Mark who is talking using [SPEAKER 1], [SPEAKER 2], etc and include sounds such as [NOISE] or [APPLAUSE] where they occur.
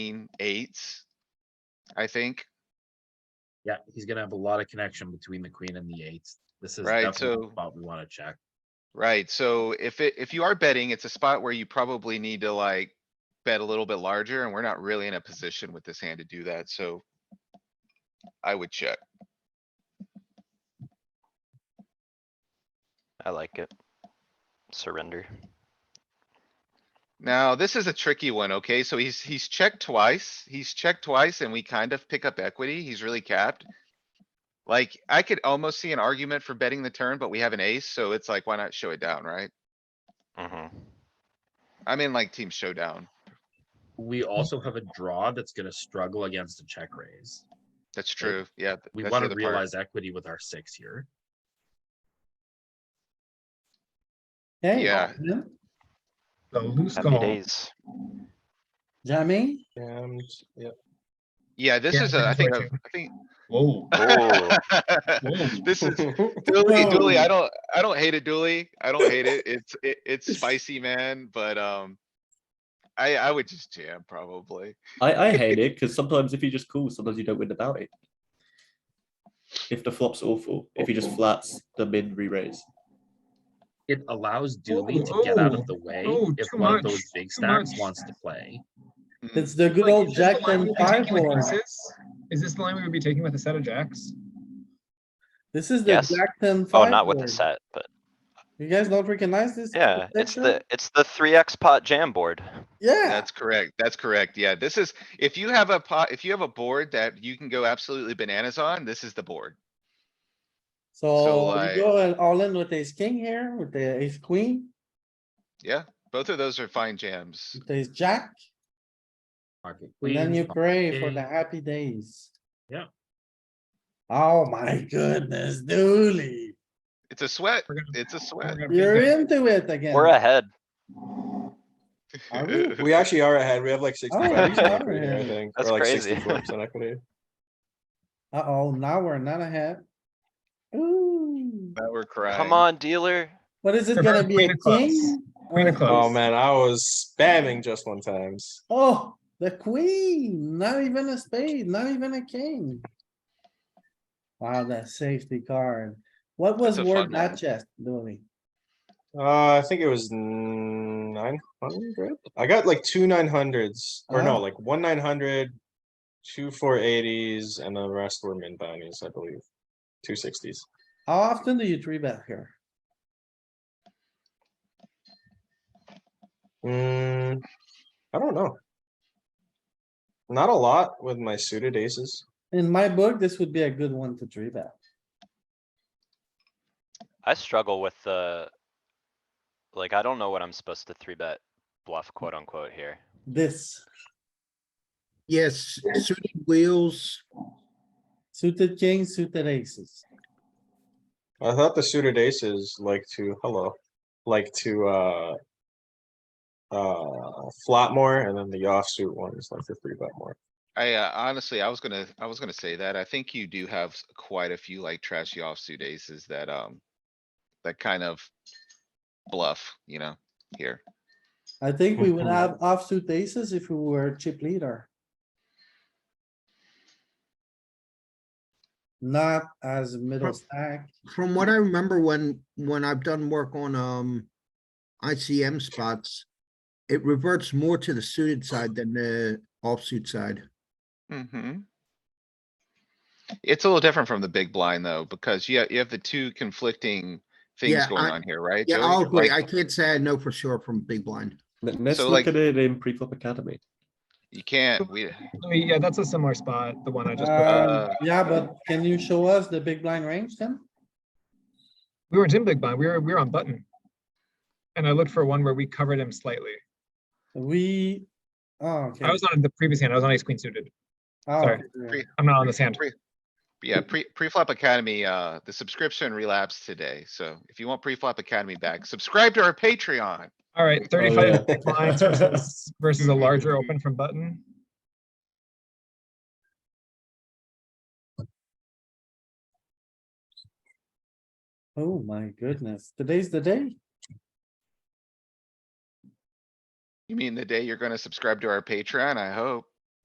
[SPEAKER 1] queen, eights. I think,
[SPEAKER 2] Yeah, he's gonna have a lot of connection between the queen and the eights. This is
[SPEAKER 1] Right,
[SPEAKER 2] definitely a
[SPEAKER 1] so-
[SPEAKER 2] spot we wanna check.
[SPEAKER 1] right? So if it, if you are betting, it's a spot where you probably need to like. Bet a little bit larger and we're not really in a position with this hand to do that, so. I would check.
[SPEAKER 3] I like it. Surrender.
[SPEAKER 1] Now, this is a tricky one, okay? So he's, he's checked twice. He's checked twice and we kind of pick up equity. He's really capped. Like, I could almost see an argument for betting the turn, but we have an ace, so it's like, why not show it down, right?
[SPEAKER 3] Mm-hmm.
[SPEAKER 1] I mean, like team showdown.
[SPEAKER 2] We
[SPEAKER 1] Mm-hmm.
[SPEAKER 2] also have a draw that's gonna struggle against a check raise.
[SPEAKER 1] That's
[SPEAKER 2] Right.
[SPEAKER 1] true. Yeah. th-
[SPEAKER 2] We
[SPEAKER 1] that's the
[SPEAKER 2] wanna
[SPEAKER 1] other part.
[SPEAKER 2] realize equity with our six here.
[SPEAKER 4] Hey,
[SPEAKER 1] Yeah.
[SPEAKER 4] yeah,
[SPEAKER 5] So loose
[SPEAKER 3] Happy
[SPEAKER 5] call.
[SPEAKER 3] days.
[SPEAKER 4] jamming,
[SPEAKER 5] And, yeah.
[SPEAKER 1] Yeah, this
[SPEAKER 5] Yeah,
[SPEAKER 1] is,
[SPEAKER 5] I
[SPEAKER 1] a- I
[SPEAKER 5] think
[SPEAKER 1] think,
[SPEAKER 5] that's
[SPEAKER 1] a- I think,
[SPEAKER 5] Whoa. whoa.
[SPEAKER 3] Oh,
[SPEAKER 1] [LAUGHS]
[SPEAKER 5] [LAUGHS]
[SPEAKER 1] this is, Dooley, Dooley, I
[SPEAKER 4] Whoa.
[SPEAKER 1] don't, I don't hate it, Dooley. I don't hate it. It's, it, it's spicy, man, but, um. I, I would just jam probably.
[SPEAKER 6] I, I hate it because sometimes if you just call, sometimes you don't win the bounty. If the flop's awful, if he just flats, the min re-raise.
[SPEAKER 2] It allows Dooley to get out
[SPEAKER 5] oh,
[SPEAKER 2] of the way
[SPEAKER 5] oh,
[SPEAKER 2] if
[SPEAKER 5] too
[SPEAKER 2] one of
[SPEAKER 5] much,
[SPEAKER 2] those big
[SPEAKER 5] too
[SPEAKER 2] stacks
[SPEAKER 5] much.
[SPEAKER 2] wants to play.
[SPEAKER 1] Mm.
[SPEAKER 4] it's the good old jack ten five board.
[SPEAKER 5] Is this the line we would be taking with a set of jacks?
[SPEAKER 4] This is the
[SPEAKER 3] Yes.
[SPEAKER 4] jack ten five.
[SPEAKER 3] oh, not with the
[SPEAKER 4] board.
[SPEAKER 3] set, but
[SPEAKER 4] You guys don't recognize this?
[SPEAKER 3] yeah, it's
[SPEAKER 4] section?
[SPEAKER 3] the, it's the three X pot jam board.
[SPEAKER 4] Yeah,
[SPEAKER 1] That's correct. That's correct. Yeah, this is, if you have a pot, if you have a board that you can go absolutely bananas on, this is the board.
[SPEAKER 4] so
[SPEAKER 1] like-
[SPEAKER 4] you go all in with ace king here, with the ace queen,
[SPEAKER 1] Yeah, both of those are fine jams.
[SPEAKER 4] with ace jack,
[SPEAKER 2] Pocket
[SPEAKER 4] and then
[SPEAKER 2] queens,
[SPEAKER 4] you
[SPEAKER 2] pocket
[SPEAKER 4] pray for the
[SPEAKER 2] king.
[SPEAKER 4] happy days.
[SPEAKER 2] Yeah.
[SPEAKER 4] Oh my goodness, Dooley,
[SPEAKER 1] It's a sweat.
[SPEAKER 5] We're gonna-
[SPEAKER 1] It's a
[SPEAKER 5] we're
[SPEAKER 1] sweat.
[SPEAKER 5] gonna take
[SPEAKER 4] you're
[SPEAKER 5] it.
[SPEAKER 4] into it again.
[SPEAKER 3] We're ahead.
[SPEAKER 4] Are we?
[SPEAKER 7] We actually are ahead. We have like sixty-five
[SPEAKER 4] yeah, we
[SPEAKER 7] percent
[SPEAKER 4] are
[SPEAKER 7] equity, I
[SPEAKER 4] ahead.
[SPEAKER 7] think.
[SPEAKER 3] That's
[SPEAKER 7] or like
[SPEAKER 3] crazy.
[SPEAKER 7] Sixty-four percent equity.
[SPEAKER 4] Uh-oh, now we're not ahead. Ooh,
[SPEAKER 1] [LAUGHS] Now we're crying.
[SPEAKER 3] Come on, dealer.
[SPEAKER 4] what is it
[SPEAKER 5] Queen
[SPEAKER 4] gonna
[SPEAKER 5] of-
[SPEAKER 4] be,
[SPEAKER 5] queen
[SPEAKER 4] a
[SPEAKER 5] of clubs.
[SPEAKER 4] king?
[SPEAKER 5] Queen of
[SPEAKER 7] [LAUGHS] Oh
[SPEAKER 5] clubs.
[SPEAKER 7] man, I was spamming just one times.
[SPEAKER 4] Oh, the queen, not even a spade, not even a king. Wow, that safety card. What was
[SPEAKER 1] a
[SPEAKER 4] worth
[SPEAKER 1] fun
[SPEAKER 4] that
[SPEAKER 1] one.
[SPEAKER 4] chest, Dooley?
[SPEAKER 7] Uh, I think it was nine hundred. I got like two nine hundreds, or
[SPEAKER 4] Oh.
[SPEAKER 7] no, like one nine hundred, two four eighties, and the rest were min bounties, I believe. Two sixties.
[SPEAKER 4] How often do you three bet here?
[SPEAKER 7] Mm, I don't know. Not a lot with my suited aces.
[SPEAKER 4] In my book, this would be a good one to three bet.
[SPEAKER 3] I struggle with the, like, I don't know what I'm supposed to three bet bluff quote unquote here.
[SPEAKER 4] This
[SPEAKER 8] Yes, suited wheels.
[SPEAKER 4] suited king, suited aces.
[SPEAKER 7] I thought the suited aces like to, hello, like to, uh. Uh, flat more and then the offsuit one is like the three bet more.
[SPEAKER 1] I uh, honestly, I was gonna, I was gonna say that. I think you do have s- quite a few like trashy offsuit aces that, um. That kind of bluff, you know, here.
[SPEAKER 4] I think we
[SPEAKER 1] [LAUGHS]
[SPEAKER 4] would
[SPEAKER 7] Mhm.
[SPEAKER 4] have offsuit aces if we were chip leader. Not as middle
[SPEAKER 8] Prob-
[SPEAKER 4] stack.
[SPEAKER 8] From what I remember when, when I've done work on, um, ICM spots, it reverts more to the suited side than the offsuit side.
[SPEAKER 1] Mm-hmm. It's a little different from the big blind though, because you, ha- you have the two conflicting things
[SPEAKER 8] Yeah,
[SPEAKER 1] going
[SPEAKER 8] I-
[SPEAKER 1] on here, right?
[SPEAKER 8] Yeah,
[SPEAKER 1] Joey?
[SPEAKER 8] I'll agree.
[SPEAKER 1] Like,
[SPEAKER 8] I can't say I know for sure from big blind.
[SPEAKER 6] Let- Let's
[SPEAKER 1] So,
[SPEAKER 6] look
[SPEAKER 1] like-
[SPEAKER 6] at it in pre-flop academy.
[SPEAKER 1] You can't, we,
[SPEAKER 5] Louis, Oh, Yeah, that's a similar spot, the one I just, put up.
[SPEAKER 4] Um,
[SPEAKER 1] uh,
[SPEAKER 4] yeah, but can you show us the big blind range then?
[SPEAKER 5] we were Jim Big Blind, we were, we were on button. And I looked for one where we covered him slightly.
[SPEAKER 4] We, oh, okay.
[SPEAKER 5] I was on the previous hand, I was on ace queen suited.
[SPEAKER 4] Oh,
[SPEAKER 5] sorry.
[SPEAKER 4] okay.
[SPEAKER 5] I'm not on this hand.
[SPEAKER 1] Pre- Yeah, pre, pre-flop academy, uh, the subscription relapsed today, so if you want pre-flop academy back, subscribe to our Patreon.
[SPEAKER 5] All right, thirty-five [LAUGHS]
[SPEAKER 7] yeah.
[SPEAKER 5] big blinds versus, versus a larger open from button.
[SPEAKER 4] Oh, my goodness. Today's the day?
[SPEAKER 1] You mean the day you're gonna subscribe to our Patreon, I hope.